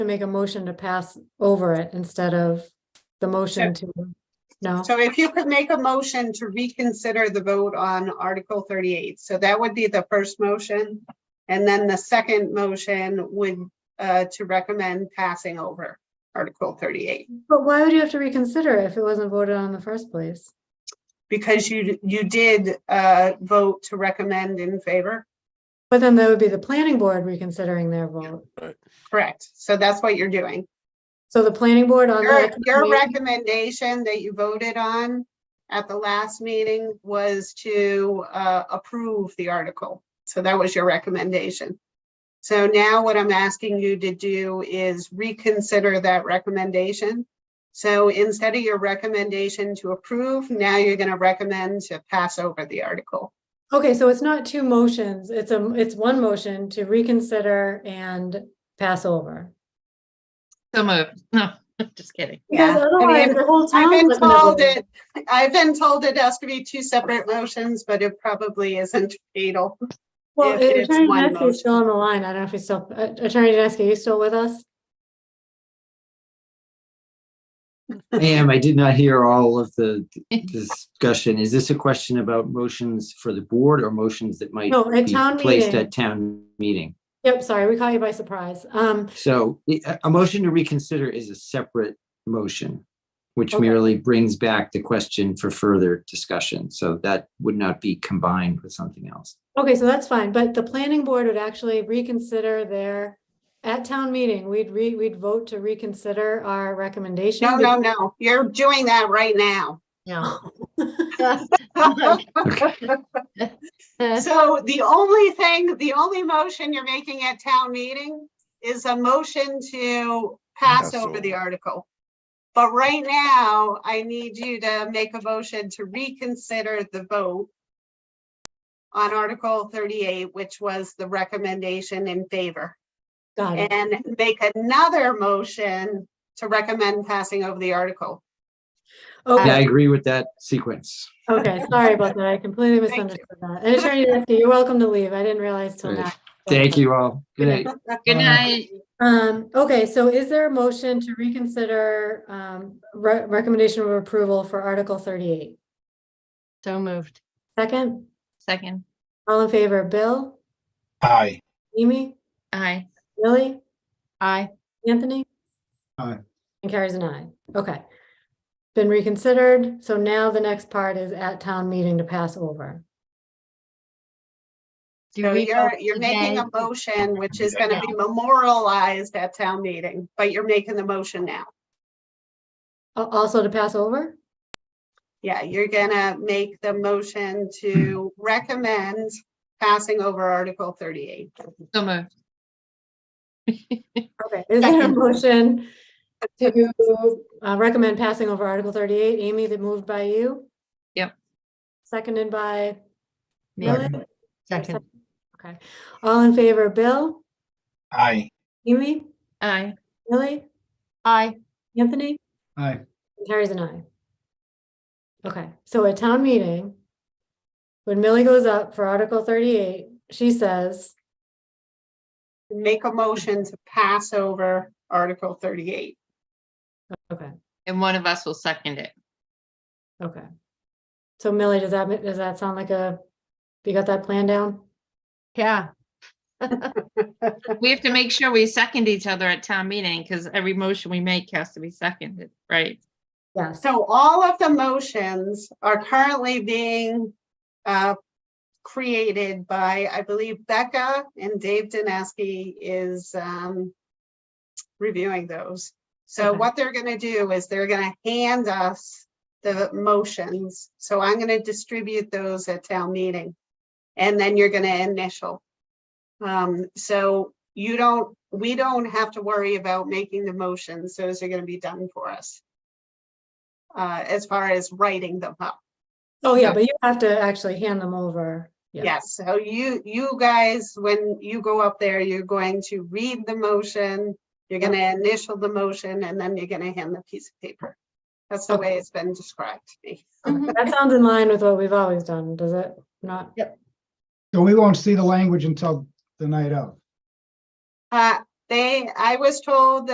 to make a motion to pass over it instead of the motion to, no? So if you could make a motion to reconsider the vote on Article thirty-eight, so that would be the first motion. And then the second motion would, uh, to recommend passing over Article thirty-eight. But why would you have to reconsider if it wasn't voted on in the first place? Because you, you did, uh, vote to recommend in favor, But then that would be the planning board reconsidering their vote. correct? So that's what you're doing. So the planning board on Your, that. your recommendation that you voted on at the last meeting was to uh, approve the article. So that was your recommendation. So now what I'm asking you to do is reconsider that recommendation. So instead of your recommendation to approve, now you're going to recommend to pass over the article. Okay, so it's not two motions, it's a, it's one motion to reconsider and pass over. So moved. No, just kidding. Because I mean, otherwise, the whole I've town. been told it, I've been told it has to be two separate motions, but it probably isn't fatal. Well, if it's Attorney one Dineski is still on the line, I don't know if he's still, uh, Attorney Dineski, are you still with us? I am. I did not hear all of the discussion. Is this a question about motions for the board or motions that might No, at be town placed meeting. at town meeting? Yep, sorry, we caught you by surprise. Um, So a, a motion to reconsider is a separate motion, which Okay. merely brings back the question for further discussion. So that would not be combined with something else. Okay, so that's fine, but the planning board would actually reconsider their, at town meeting, we'd re, we'd vote to reconsider our recommendation. No, no, no, you're doing that right now. No. So the only thing, the only motion you're making at town meeting is a motion to pass Pass over the over. article. But right now, I need you to make a motion to reconsider the vote on Article thirty-eight, which was the recommendation in favor, Got it, and make another motion to recommend passing over the article. Yeah, I okay, agree with that sequence. okay, sorry about that, I completely you. misunderstood that. And Attorney Dineski, you're welcome to leave, I didn't realize till now. Thank you all. Good night. Good night. Um, okay, so is there a motion to reconsider, um, re- recommendation of approval for Article thirty-eight? So moved. Second, Second. all in favor, Bill, Aye. Amy, Aye. Lily? Aye. Anthony? Aye. And carries an aye. Okay. Been reconsidered. So now the next part is at town meeting to pass over. Do So we you're, vote you're making a today? motion which is gonna be memorialized at town meeting, but you're making the motion now. Al- Also to pass over? Yeah, you're gonna make the motion to recommend passing over Article thirty-eight. So moved. Okay. Is there a Second. motion to uh, recommend passing over Article 38? Amy, that moved by you? Yep. Seconded by Millie? Second. Second. Okay. All in favor, Bill, Aye. Amy, Aye. Lily, Aye. Anthony? Aye. Carries an eye. Okay, so at town meeting, when Millie goes up for Article thirty-eight, she says, Make a motion to pass over Article thirty-eight. okay, And one of us will second it. okay. So Millie, does that, ma- does that sound like a, you got that plan down? Yeah. We have to make sure we second each other at town meeting because every motion we make has to be seconded, right? Yes. So all of the motions are currently being uh, created by, I believe Becca and Dave Dineski is um, reviewing those. So Okay. what they're gonna do is they're gonna hand us the motions. So I'm gonna distribute those at town meeting. And then you're gonna initial. Um, So you don't, we don't have to worry about making the motions. Those are gonna be done for us uh, as far as writing them up. Oh, yeah, but you have to actually hand them over. Yeah. Yes, so you, you guys, when you go up there, you're going to read the motion, you're Yeah. gonna initial the motion, and then you're gonna hand the piece of paper. That's the way it's been described to me. Okay, That sounds in line with what we've always done, does it not? So we won't see the language until the night of. Uh, They, I was told that